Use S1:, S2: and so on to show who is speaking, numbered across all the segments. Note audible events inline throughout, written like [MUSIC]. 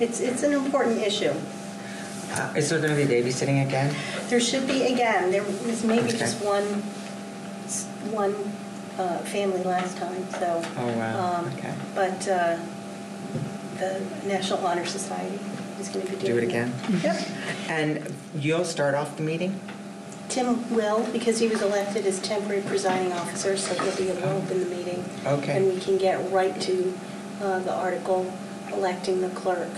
S1: It's, it's an important issue.
S2: Uh, Is there going to be babysitting again?
S1: There should be, again, there was maybe
S2: Okay.
S1: just one, s- one uh, family last time, so.
S2: Oh, wow.
S1: um,
S2: Okay.
S1: But uh, the National Honor Society is going to be
S2: Do
S1: doing.
S2: it again?
S1: Yep.
S2: And you'll start off the meeting?
S1: Tim will, because he was elected as temporary presiding officer, so he'll be involved in the meeting.
S2: Okay.
S1: And we can get right to uh, the article electing the clerk.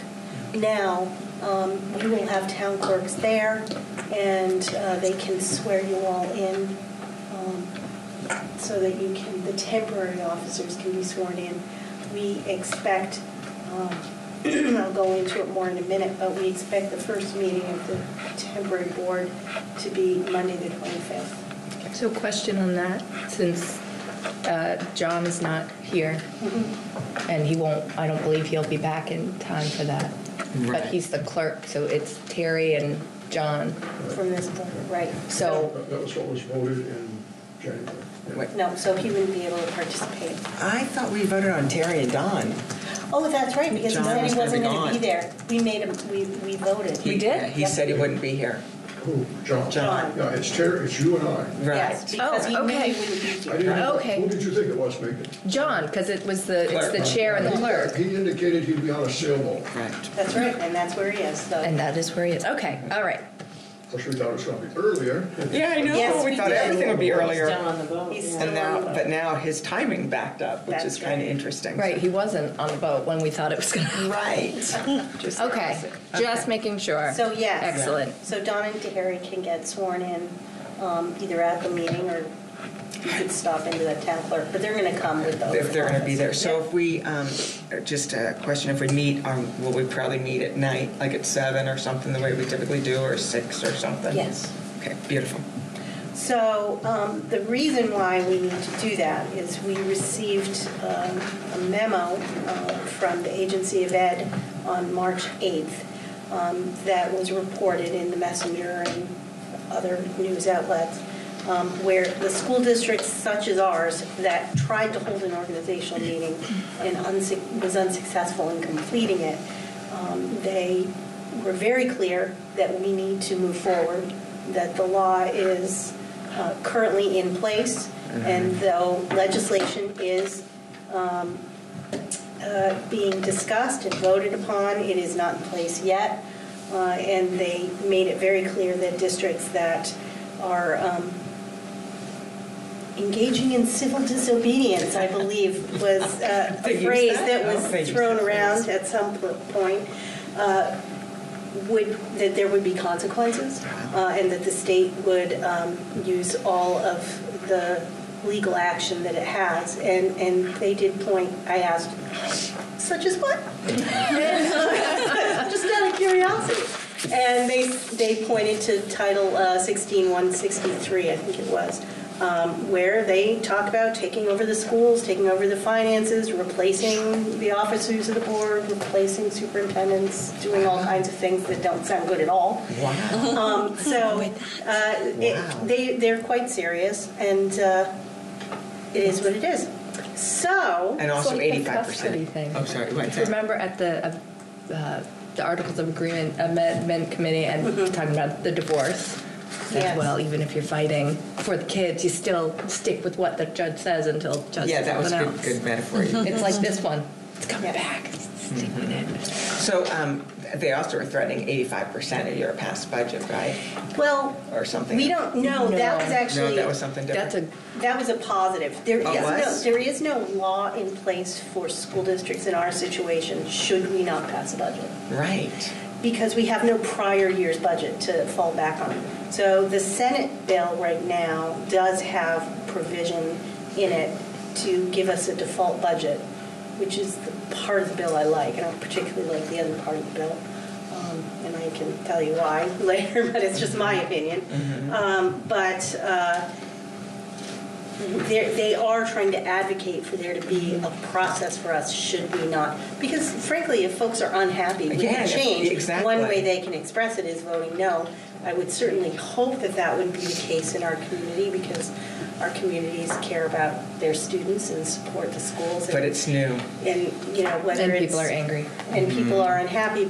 S1: Now, um, you will have town clerks there, and uh, they can swear you all in, um, so that you can, the temporary officers can be sworn in. We expect, um, [CLEARS THROAT] I'll go into it more in a minute, but we expect the first meeting of the temporary board to be Monday, the 25th.
S3: So question on that, since uh, John is not here, and he won't, I don't believe he'll be back in time for that.
S2: Right.
S3: But he's the clerk, so it's Terry and John.
S1: from this point, right?
S3: So,
S4: That that was what was voted in January.
S2: Wait.
S1: No, so he wouldn't be able to participate.
S2: I thought we voted on Terry and Don.
S1: Oh, that's right, because he
S2: John
S1: said
S2: was
S1: he
S2: gonna
S1: wasn't
S2: be
S1: going to be
S2: gone.
S1: there. We made him, we, we voted.
S2: He- yeah, He
S1: Yep.
S2: said he wouldn't be here.
S4: Who? John?
S1: John.
S4: Yeah, it's Terry, it's you and I.
S2: Right.
S1: Yes, because he
S3: Oh,
S1: knew he
S3: okay.
S1: wouldn't be
S4: I
S1: here.
S4: didn't know-
S3: Okay.
S4: Who did you think it was, Megan?
S3: John, because it was the, it's the
S2: Clerk.
S3: chair and the clerk.
S4: He indicated he'd be on a sailboat,
S2: Right.
S1: That's right, and that's where he is, so.
S3: And that is where he is. Okay, all right.
S4: Of course, we thought it was going to be earlier.
S2: Yeah, I know.
S1: Yes,
S2: We
S1: we
S2: thought
S1: did.
S2: everything would be
S5: Down
S2: earlier.
S5: on the boat.
S1: He's
S5: yeah.
S1: still-
S2: And now, but now his timing backed up, which is
S1: That's right.
S2: kind of interesting.
S3: Right, he wasn't on the boat when we thought it was gonna. [LAUGHS]
S2: Right. Just the
S3: Okay,
S2: opposite.
S3: just making sure.
S1: So, yes.
S3: Excellent.
S1: So Don and Harry can get sworn in, um, either at the meeting or you could stop into the town clerk, but they're gonna come with those.
S2: If they're going to be there. So
S1: Yeah.
S2: if we, um, just a question, if we meet, um, will we probably meet at night, like at seven or something, the way we typically do, or six or something?
S1: Yes.
S2: Okay, beautiful.
S1: So um, the reason why we need to do that is we received um, a memo uh, from the Agency of Ed on March 8th um, that was reported in the Messenger and other news outlets, um, where the school districts such as ours that tried to hold an organizational meeting and unsuc- was unsuccessful in completing it, um, they were very clear that we need to move forward, that the law is uh, currently in place, and though legislation is um, uh, being discussed and voted upon, it is not in place yet. Uh, And they made it very clear that districts that are um, engaging in civil disobedience, I believe,
S2: [LAUGHS]
S1: was uh,
S2: They
S1: a
S2: used
S1: phrase
S2: that?
S1: that
S2: Oh, they
S1: was
S2: used
S1: thrown
S2: that
S1: around
S2: phrase.
S1: at some pl- point, uh, would, that there would be consequences,
S2: Uh-huh.
S1: uh, and that the state would um, use all of the legal action that it has. And, and they did point, I asked, such as what? And, uh, Just out of curiosity. And they, they pointed to Title uh, 16163, I think it was, um, where they talk about taking over the schools, taking over the finances, replacing the officers of the board, replacing superintendents, doing all kinds of things that don't sound good at all.
S2: Wow.
S1: Um, So uh,
S2: Wow.
S1: it- they, they're quite serious, and uh, it is what it is. So.
S2: And also
S3: So the
S2: eighty-five
S3: custody
S2: percent.
S3: thing.
S2: I'm Oh, sorry, what's that?
S3: Remember at the, uh, uh, the Articles of Agreement Amendment Committee and
S2: Mm-hmm.
S3: talking about the divorce
S1: Yes.
S3: as well, even if you're fighting for the kids, you still stick with what the judge says until judge
S2: Yeah,
S3: says
S2: that was
S3: something
S2: good,
S3: else.
S2: good metaphor.
S3: [LAUGHS] It's like this one, it's coming
S1: Yeah.
S3: back, stick with it.
S2: So um, they also were threatening eighty-five percent of your past budget, right?
S1: Well,
S2: Or something.
S1: we don't know. That was
S3: No.
S1: actually
S2: No, that was something different.
S3: That's a,
S1: that was a positive. There
S2: Oh,
S1: is
S2: was?
S1: no there is no law in place for school districts in our situation. Should we not pass a budget?
S2: Right.
S1: because we have no prior year's budget to fall back on. So the Senate bill right now does have provision in it to give us a default budget, which is the part of the bill I like. I don't particularly like the other part of the bill, um, and I can tell you why [LAUGHS] later, but it's just my opinion.
S2: Mm-hmm.
S1: Um, But uh, they're- they are trying to advocate for there to be a process for us should we not, because frankly, if folks are unhappy with
S2: Yeah,
S1: the change,
S2: exactly.
S1: one way they can express it is voting no. I would certainly hope that that would be the case in our community because our communities care about their students and support the schools.
S2: But
S1: and-
S2: it's new.
S1: And, you know, whether
S3: and
S1: it's.
S3: people are angry.
S2: Mm-hmm.
S1: And people are unhappy,